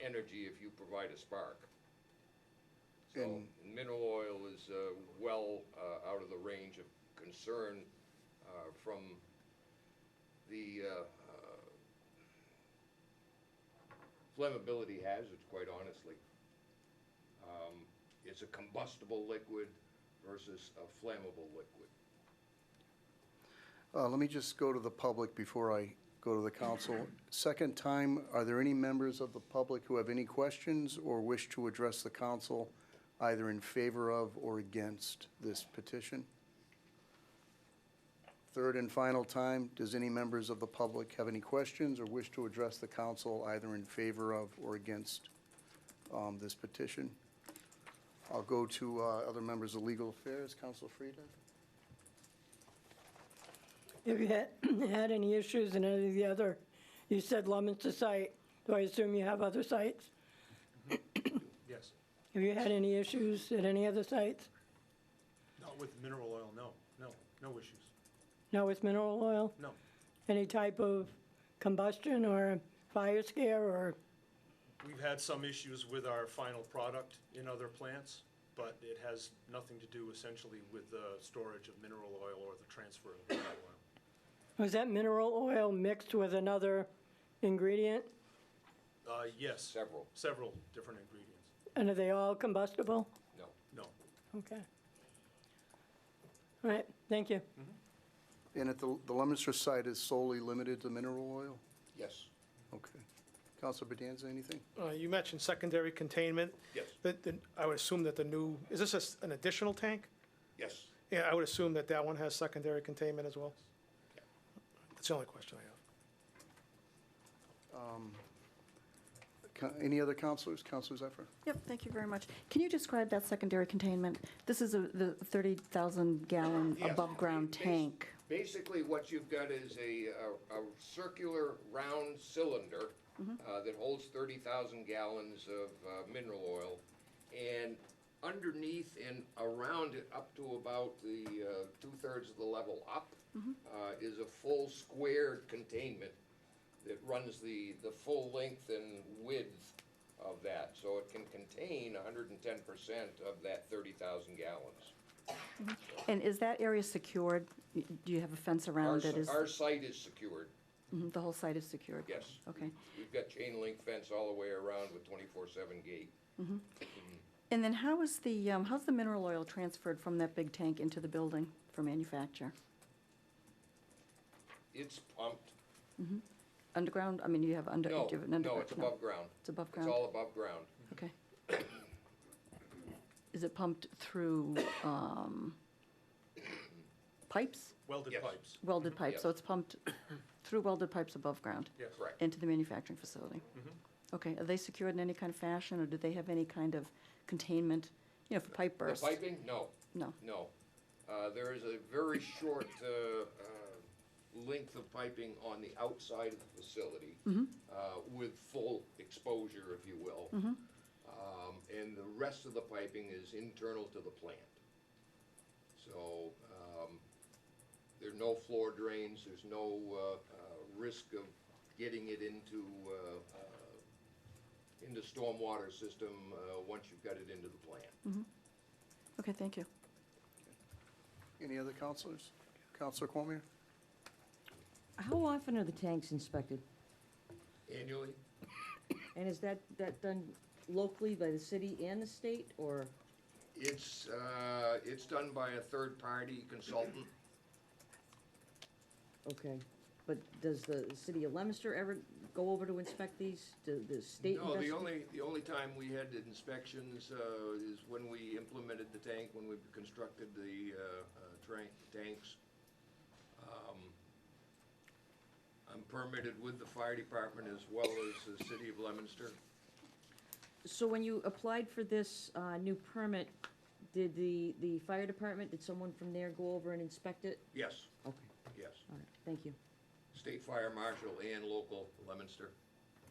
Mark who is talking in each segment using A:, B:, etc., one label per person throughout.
A: energy if you provide a spark. So
B: And-
A: mineral oil is uh, well uh, out of the range of concern uh, from the uh, uh, flammability hazards, quite honestly. Um, It's a combustible liquid versus a flammable liquid.
B: Uh, Let me just go to the public before I go to the council. Second time, are there any members of the public who have any questions or wish to address the council either in favor of or against this petition? Third and final time, does any members of the public have any questions or wish to address the council either in favor of or against um, this petition? I'll go to uh, other members of legal affairs. Council Frida?
C: Have you had, had any issues in any of the other, you said Lemonster site, do I assume you have other sites?
D: Yes,
C: Have you had any issues at any other sites?
D: not with mineral oil, no, no, no issues,
C: No, with mineral oil?
D: no.
C: Any type of combustion or fire scare or,
D: We've had some issues with our final product in other plants, but it has nothing to do essentially with the storage of mineral oil or the transfer of mineral oil.
C: was that mineral oil mixed with another ingredient?
D: Uh, yes,
A: Several,
D: several different ingredients,
C: And are they all combustible?
A: no.
D: no.
C: Okay. All right, thank you.
B: And at the, the Lemonster site is solely limited to mineral oil?
A: Yes.
B: Okay. Counselor Bedanza, anything?
E: Uh, You mentioned secondary containment.
A: Yes.
E: That- that- I would assume that the new, is this a s- an additional tank?
A: Yes.
E: Yeah, I would assume that that one has secondary containment as well? That's the only question I have.
B: Ca- Um, Any other counselors? Counselor Zephyr?
F: Yep, thank you very much. Can you describe that secondary containment? This is a- the 30,000 gallon
A: Yes.
F: above-ground
A: Bas-
F: tank.
A: Basically, what you've got is a, a- a circular round cylinder uh, that holds thirty thousand gallons of uh, mineral oil. And underneath and around it, up to about the uh, two-thirds of the level up, uh, is a full squared containment that runs the, the full length and width of that. So it can contain hundred and ten percent of that thirty thousand gallons.
F: And is that area secured? Y- Do you have a fence
A: Our,
F: around it?
A: s-
F: Is-
A: our site is secured.
F: mhm, The whole site is secured?
A: Yes.
F: Okay.
A: We've got chain link fence all the way around with twenty-four seven gate.
F: And then how is the, um, how's the mineral oil transferred from that big tank into the building for manufacture?
A: It's pumped.
F: Underground? I mean, you have under, do you
A: No,
F: have an underground?
A: no, it's above ground.
F: It's above
A: It's
F: ground?
A: all above ground.
F: Okay. Is it pumped through um, pipes?
D: Welded
A: Yes.
D: pipes,
F: Welded pipes, so
A: Yes.
F: it's pumped through welded pipes above ground
D: yes.
A: Correct.
F: into the manufacturing facility? Okay, are they secured in any kind of fashion, or do they have any kind of containment, you know, for pipe
A: The
F: bursts?
A: piping? No,
F: No,
A: no. Uh, there is a very short, uh, uh, length of piping on the outside of the facility. Uh, with full exposure, if you will. Um, and the rest of the piping is internal to the plant. So, um, There's no floor drains, there's no uh, uh, risk of getting it into, uh, uh, into stormwater system uh, once you've got it into the plant.
F: okay, thank you.
B: Any other counselors? Counselor Cormier?
G: How often are the tanks inspected?
A: Annually?
G: And is that, that done locally by the city and the state, or?
A: It's, uh, it's done by a third-party consultant.
G: Okay, but does the city of Leominster ever go over to inspect these, Do the state?
A: No, the
G: investi-
A: only, the only time we had inspections uh, is when we implemented the tank, when we constructed the uh, uh, tran- tanks. Um, I'm permitted with the fire department as well as the city of Leominster.
G: So when you applied for this, uh, new permit, did the, the fire department, did someone from there go over and inspect it?
A: Yes,
G: Okay,
A: yes.
G: all right, thank you,
A: State fire marshal and local Leominster.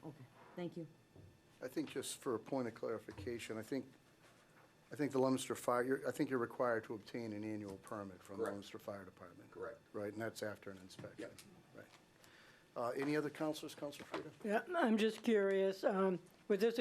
G: okay, thank you.
B: I think just for a point of clarification, I think, I think the Lemonster Fire, you're- I think you're required to obtain an annual permit from the
A: Correct.
B: Lemonster Fire Department.
A: Correct.
B: Right, and that's after an inspection. Right. Uh, Any other counselors? Counselor Frida?
C: Yeah, I'm just curious, um, with this